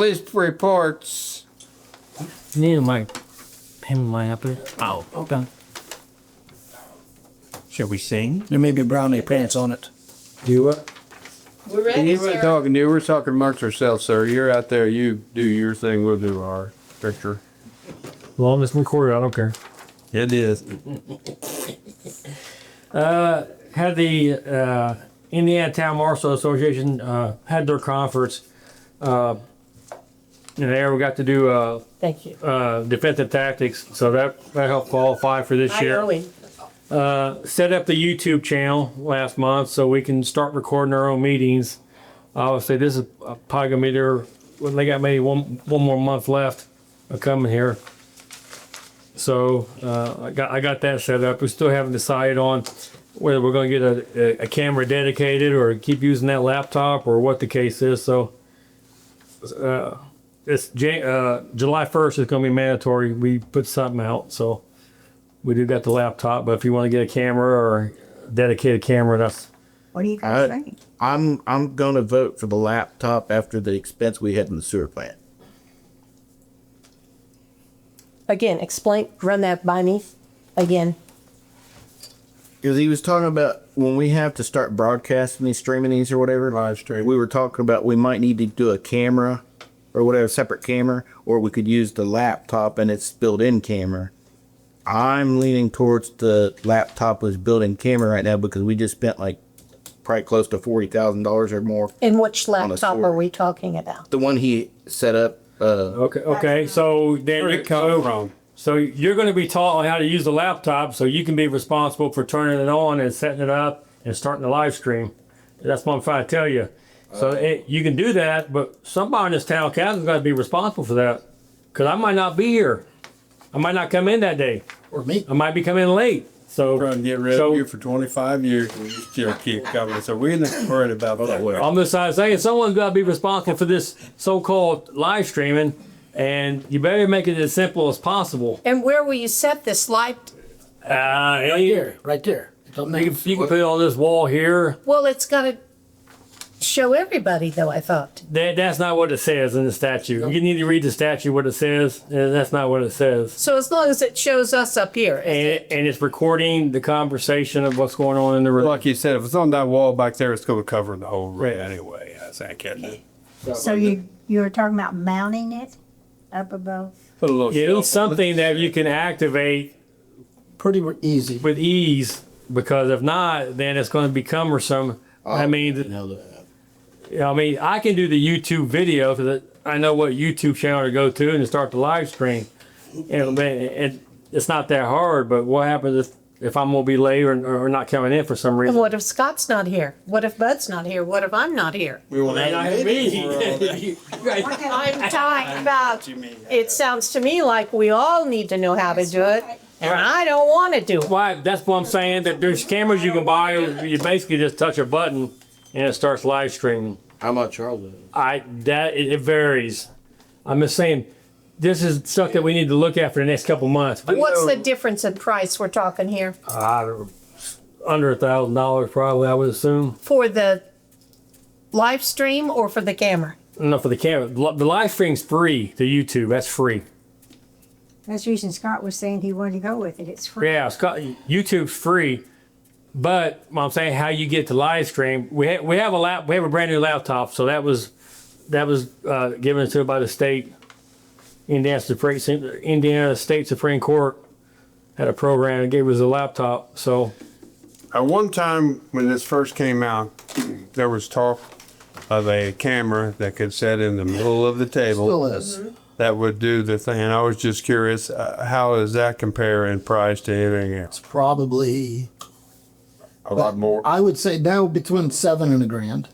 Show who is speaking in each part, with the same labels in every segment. Speaker 1: Police reports.
Speaker 2: Need my pen line up here. Oh, done. Shall we sing?
Speaker 3: There may be brownie pants on it.
Speaker 4: Do what?
Speaker 5: We're ready,
Speaker 1: You weren't
Speaker 5: sir.
Speaker 1: talking to you. We're talking amongst ourselves, sir. You're out there. You do your thing. We'll do our picture.
Speaker 4: Long as recorded, I don't care.
Speaker 1: It is.
Speaker 4: Had the uh, Indiana Town Marshal Association uh, had their conference. Uh, and there we got to do uh,
Speaker 5: Thank you.
Speaker 4: uh, defensive tactics, so that, that helped qualify for this
Speaker 5: I
Speaker 4: year.
Speaker 5: owe him.
Speaker 4: set up the YouTube channel last month so we can start recording our own meetings. Obviously, this is uh, probably gonna be their. Well, they got maybe one one more month left of coming here. So uh, I got I got that set up. We still haven't decided on whether we're gonna get a, a, a camera dedicated or keep using that laptop or what the case is. So. Uh, it's Jan- uh, July first is going to be mandatory. We put something out, so we do got the laptop, but if you want to get a camera or dedicated camera, that's
Speaker 6: What do you
Speaker 7: I-
Speaker 6: guys think?
Speaker 7: I'm I'm gonna vote for the laptop after the expense we had in the sewer plant.
Speaker 5: Again, explain, run that by me again.
Speaker 7: Because he was talking about when we have to start broadcasting these, streaming these, or whatever. Live stream. We were talking about we might need to do a camera, or whatever, separate camera, or we could use the laptop and its built-in camera. I'm leaning towards the laptop with built-in camera right now because we just spent like probably close to forty thousand dollars or more.
Speaker 5: And which laptop
Speaker 7: sword.
Speaker 5: are we talking about?
Speaker 7: The one he set up. Uh,
Speaker 4: okay. Okay, so then
Speaker 1: Where'd it come from?
Speaker 4: So you're going to be taught on how to use the laptop, so you can be responsible for turning it on and setting it up and starting the live stream. That's what I'm trying to tell you.
Speaker 3: Uh.
Speaker 4: So it, you can do that, but somebody in this town council's got to be responsible for that, because I might not be here. I might not come in that day.
Speaker 3: Or me.
Speaker 4: I might be coming late. So
Speaker 1: Trying to get rid
Speaker 4: So-
Speaker 1: of you for 25 years, and you still keep coming. So we're not worried about that.
Speaker 4: I'm just uh, saying someone's got to be responsible for this so-called live streaming, and you better make it as simple as possible.
Speaker 5: And where will you set this light?
Speaker 4: Uh, right here.
Speaker 3: Right there. It's on there.
Speaker 4: You can, you can put it on this wall here.
Speaker 5: Well, it's gotta show everybody though, I thought.
Speaker 4: That that's not what it says in the statute. You need to read the statute what it says, and that's not what it says.
Speaker 5: So as long as it shows us up here.
Speaker 4: And, and it's recording the conversation of what's going on in the room.
Speaker 1: Like you said, if it's on that wall back there, it's going to cover the whole room
Speaker 4: Right.
Speaker 1: anyway. That's accurate.
Speaker 6: So you, you were talking about mounting it up above?
Speaker 1: Put a little
Speaker 4: Yeah,
Speaker 1: shelf
Speaker 4: It's something that you can activate
Speaker 3: Pretty easy.
Speaker 4: with ease because if not, then it's going to be cumbersome. I mean, the-
Speaker 7: now the-
Speaker 4: Yeah, I mean, I can do the YouTube video because I know what YouTube channel to go to and to start the live stream. And, man, it, it's not that hard, but what happens if, if I'm going to be late or, or not coming in for some
Speaker 5: And
Speaker 4: reason?
Speaker 5: what if Scott's not here? What if Bud's not here? What if I'm not here? I'm talking about, it sounds to me like we all need to know how to do it, and I don't wanna do it.
Speaker 4: Why, that's what I'm saying, that there's cameras you can buy. You basically just touch a button and it starts live streaming.
Speaker 7: How much are those?
Speaker 4: I that it, it varies. I'm just saying, this is stuff that we need to look at for the next couple months.
Speaker 5: What's the difference in price we're talking here
Speaker 4: I don't- under a thousand dollars probably, I would assume.
Speaker 5: for the live stream or for the camera?
Speaker 4: No, for the camera. Li- The live stream's free to YouTube. That's free.
Speaker 6: That's the reason Scott was saying he wanted to go with it. It's free.
Speaker 4: Yeah, it's got- YouTube's free. But what I'm saying how you get to live stream. We ha- we have a lap. We have a brand new laptop. So that was that was uh, given to us by the state. Indiana Supreme Indiana State Supreme Court had a program and gave us a laptop. So
Speaker 1: At one time, when this first came out, there was talk of a camera that could set in the middle of the
Speaker 3: Still
Speaker 1: table
Speaker 3: is.
Speaker 1: that would do the thing. And I was just curious, uh, how does that compare in price to anything else?
Speaker 3: Probably.
Speaker 1: A lot more.
Speaker 3: I would say now between seven and a grand,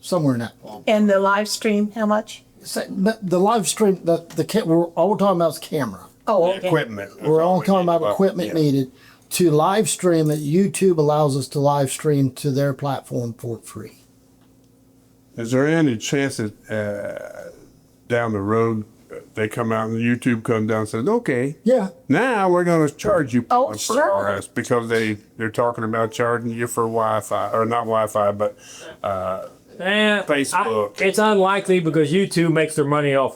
Speaker 3: somewhere in that.
Speaker 5: And the live stream, how much?
Speaker 3: Say- The, the live stream, the, the, ca- we're, all we're talking about is camera.
Speaker 5: Oh, okay.
Speaker 1: Equipment.
Speaker 3: We're all talking about equipment needed to live stream that YouTube allows us to live stream to their platform for free.
Speaker 1: Is there any chance that uh, down the road uh, they come out and YouTube comes down and says, "Okay,
Speaker 3: Yeah.
Speaker 1: now we're going to charge you
Speaker 5: Oh,
Speaker 1: for
Speaker 5: sure.
Speaker 1: RS," because they they're talking about charging you for Wi-Fi or not Wi-Fi, but uh,
Speaker 4: Eh, I-
Speaker 1: Facebook.
Speaker 4: it's unlikely because YouTube makes their money off